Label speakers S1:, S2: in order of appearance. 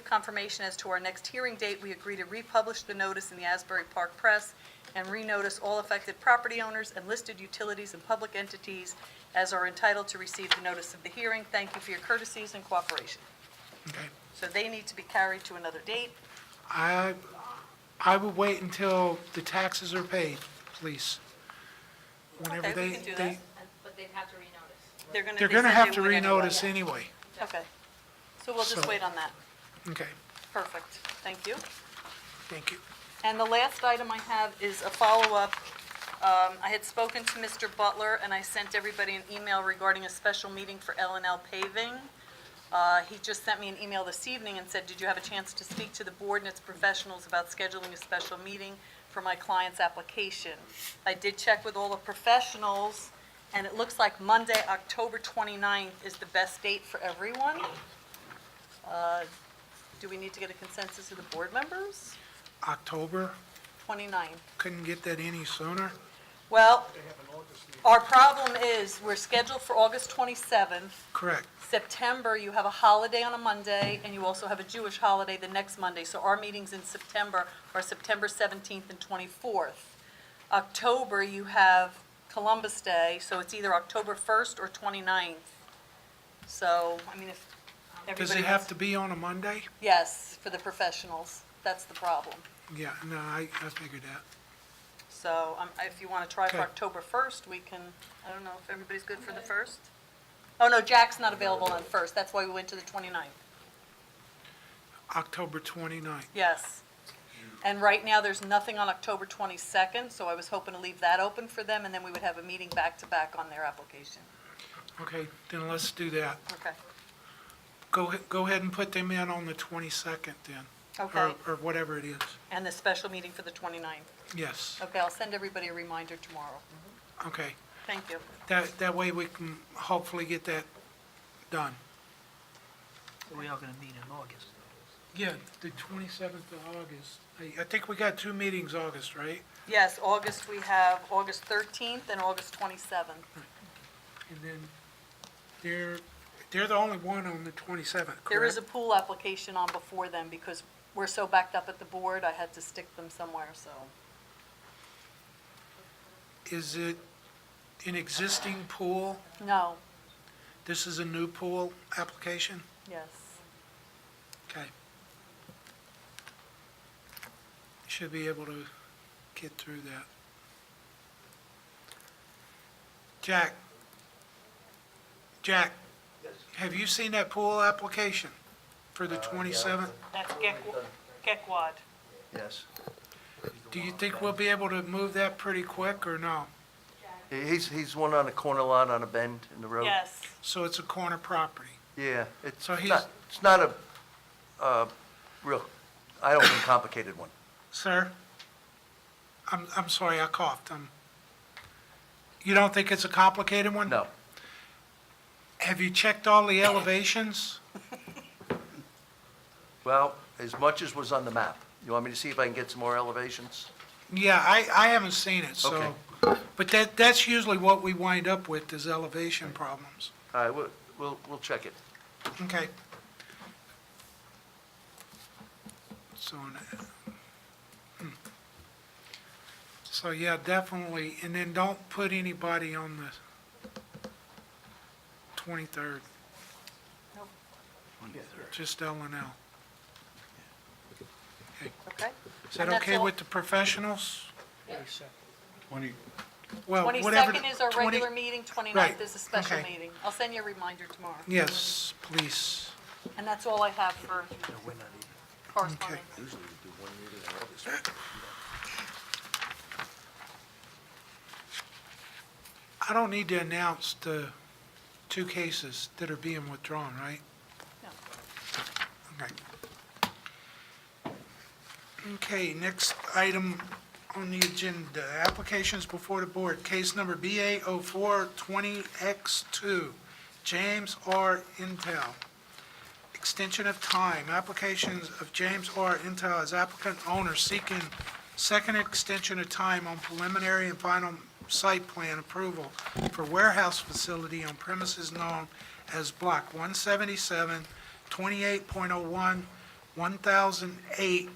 S1: Confirmation as to our next hearing date, we agree to republish the notice in the Asbury Park Press and renotice all affected property owners and listed utilities and public entities as are entitled to receive the notice of the hearing. Thank you for your courtesies and cooperation.
S2: Okay.
S1: So they need to be carried to another date.
S2: I, I would wait until the taxes are paid, please.
S1: Okay,
S2: Whenever
S1: we
S2: they,
S1: can do
S2: they,
S3: And- But they'd have to renotice.
S1: They're going to.
S2: they're gonna have to renotice anyway.
S1: Okay. So we'll just
S2: So-
S1: wait on that.
S2: Okay,
S1: Perfect. Thank you.
S2: thank you.
S1: And the last item I have is a follow-up. Um, I had spoken to Mr. Butler, and I sent everybody an email regarding a special meeting for L and L paving. Uh, He just sent me an email this evening and said, "Did you have a chance to speak to the board and its professionals about scheduling a special meeting for my client's application?" I did check with all the professionals, and it looks like Monday, October 29th is the best date for everyone. Uh, Do we need to get a consensus of the board members?
S2: October,
S1: 29th.
S2: couldn't get that any sooner.
S1: Well, our problem is, we're scheduled for August 27th.
S2: Correct,
S1: September, you have a holiday on a Monday, and you also have a Jewish holiday the next Monday. So our meetings in September are September 17th and 24th. October, you have Columbus Day, so it's either October 1st or 29th. So, I mean, if everybody...
S2: Does it have to be on a Monday?
S1: Yes, for the professionals. That's the problem.
S2: Yeah, no, I, I figured that.
S1: So um, if you want to try for
S2: Okay.
S1: October 1st, we can, I don't know if everybody's good for the 1st? Oh, no, Jack's not available on 1st, that's why we went to the 29th.
S2: October 29th.
S1: Yes. And right now, there's nothing on October 22nd, so I was hoping to leave that open for them, and then we would have a meeting back-to-back on their application.
S2: Okay, then let's do that.
S1: Okay.
S2: Go, ahe- go ahead and put them in on the 22nd then. or-
S1: Okay.
S2: Or whatever it is.
S1: And the special meeting for the 29th.
S2: Yes,
S1: Okay, I'll send everybody a reminder tomorrow.
S2: okay.
S1: Thank you.
S2: That, that way we can hopefully get that done.
S4: We are gonna meet in August.
S2: Yeah, the 27th of August. I, I think we got two meetings August, right?
S1: Yes, August, we have August 13th and August 27th.
S2: And then they're, they're the only one on the 27th, correct?
S1: There is a pool application on before them because we're so backed up at the board, I had to stick them somewhere, so.
S2: Is it an existing pool?
S1: No,
S2: This is a new pool application?
S1: yes.
S2: Okay. Should be able to get through that. Jack? Jack? Have you seen that pool application for the 27th?
S1: That's Gekwad.
S5: Yes.
S2: Do you think we'll be able to move that pretty quick or no?
S5: He- He's, he's one on a corner lot on a bend in the road.
S2: So it's a corner property?
S5: Yeah, it's
S2: So he's-
S5: not, it's not a, uh, real, I don't think complicated one.
S2: Sir? I'm, I'm sorry, I coughed. Um, You don't think it's a complicated one?
S5: No.
S2: Have you checked all the elevations?
S5: Well, as much as was on the map. You want me to see if I can get some more elevations?
S2: Yeah, I, I haven't seen it, so.
S5: Okay.
S2: But that, that's usually what we wind up with, is elevation problems.
S5: All right, we'll, we'll, we'll check it.
S2: Okay. So, n- hmm. so yeah, definitely, and then don't put anybody on the 23rd.
S1: Nope.
S2: Just L and L.
S1: Okay.
S2: Is that
S1: And that's
S2: okay
S1: all-
S2: with the professionals?
S6: Twenty,
S2: Well, Oh, whatever.
S1: 22nd is our
S2: 20
S1: regular meeting, 29th is a special
S2: okay.
S1: meeting. I'll send you a reminder tomorrow.
S2: Yes, please.
S1: And that's all I have for correspondence.
S2: I don't need to announce the two cases that are being withdrawn, right?
S1: No.
S2: Okay. Okay, next item on the agenda, applications before the board. Case number oh BA 0420X2, James R. Intel. Extension of time, applications of James R. Intel as applicant owner seeking second extension of time on preliminary and final site plan approval for warehouse facility on oh premises known as Block 177, 28.01, 1008